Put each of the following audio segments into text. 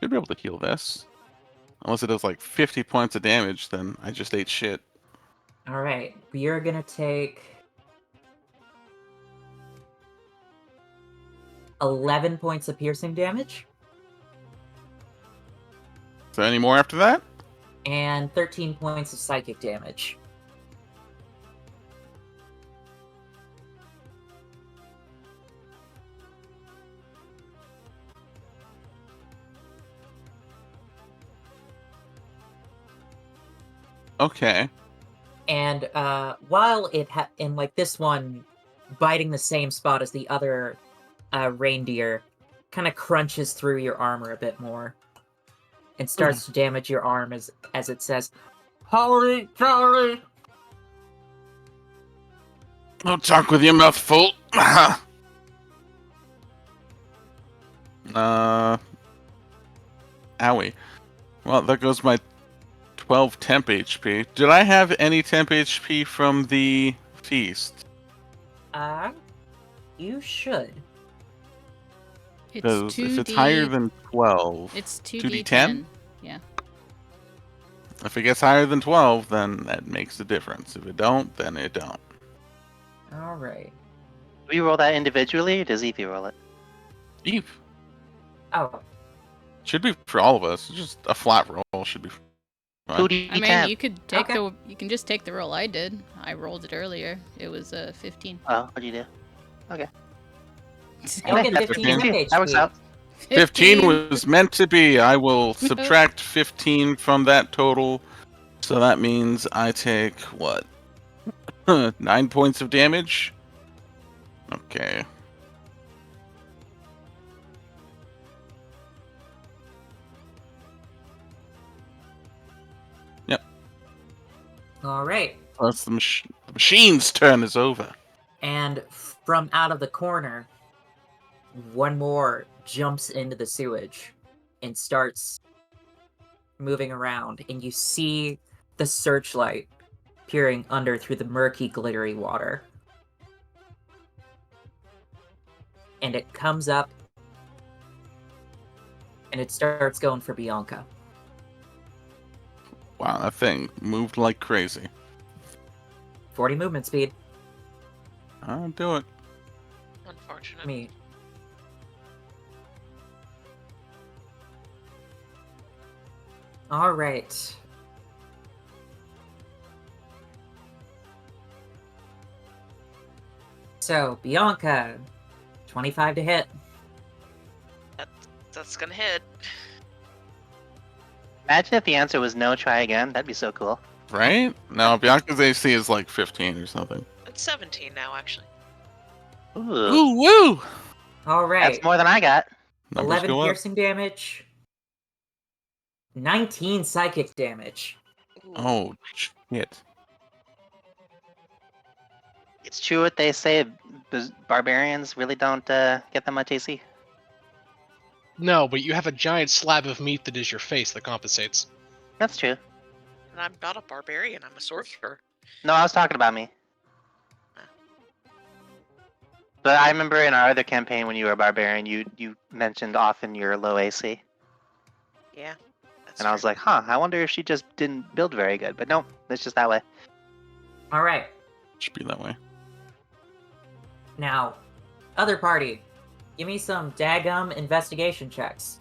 Should be able to heal this. Unless it does like 50 points of damage, then I just ate shit. All right, we are gonna take eleven points of piercing damage Is there any more after that? and thirteen points of psychic damage. Okay. And uh, while it ha- and like this one, biting the same spot as the other uh, reindeer, kind of crunches through your armor a bit more, and starts to damage your arm as as it says, "Holy jolly!" No talk with your mouth full. uh. Owie. Well, there goes my 12 temp HP. Did I have any temp HP from the feast? Uh, you should. Because It's two if it's D. higher than 12, it's two 2D10? D10. if it gets higher than 12, then that makes a difference. If it don't, then it don't. All right. Do we roll that individually, or does Evie roll it? Eve. Oh, Should be for all of us. Just a flat roll should be. Fine. Who do you I mean, tap? you could take Okay. the you can just take the roll I did. I rolled it earlier. It was uh, 15. Oh, what do you do? you'll Okay, get that's 15 okay. temp That works HP. out. 15 was meant to be. I will subtract 15 from that total. So that means I take what? 9 points of damage? Okay. All right. Plus the, mach- the machine's turn is over. And from out of the corner, one more jumps into the sewage and starts moving around. And you see the searchlight peering under through the murky, glittery water. And it comes up and it starts going for Bianca. Wow, that thing moved like crazy. 40 movement speed. I'll do it. I Unfortunate. mean, All right. So, Bianca, 25 to hit. That's gonna hit. Imagine if the answer was no, try again. That'd be so cool. Right? No, Bianca's AC is like 15 or something. It's 17 now, actually. Ooh, Ooh, woo! All right. that's more than I got. Numbers 11 go up. piercing damage, 19 psychic damage. Ooh, Oh, shit. It's true what they say. bas- Barbarians really don't uh, get that much AC. No, but you have a giant slab of meat that is your face that compensates. That's true. And I'm not a barbarian. I'm a sorcerer. No, I was talking about me. But I remember in our other campaign when you were a barbarian, you you mentioned often your low AC, Yeah. That's and I was true. like, huh, I wonder if she just didn't build very good. But no, it's just that way. All right. Should be that way. Now, other party, give me some dagum investigation checks.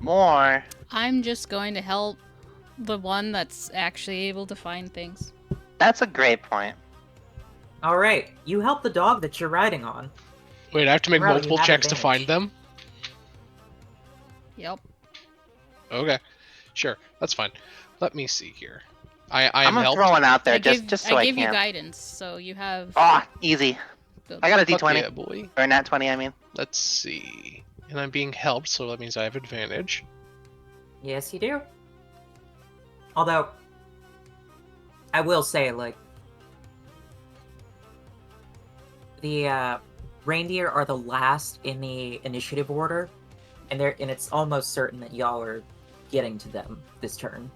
More. I'm just going to help the one that's actually able to find things. That's a great point. All right. You help the dog that you're riding on. Wait, I have to make Bro, you multiple have checks to advantage. find them? Yep. Okay. Sure. That's fine. Let me see here. I, I I'm am gonna helped. throw one out there I just give, just so I I, give you can. guidance, so you have. Ah, easy. the- I got a Fuck D20 yeah, boy. or not 20. I mean, Let's see. And I'm being helped, so that means I have advantage. Yes, you do. Although, I will say, like, the uh, reindeer are the last in the initiative order, and they're and it's almost certain that y'all are getting to them this turn.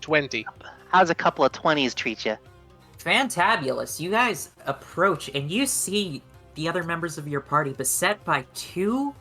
Twenty. how's a couple of 20s treat you? Fantabulous! You guys approach, and you see the other members of your party beset by two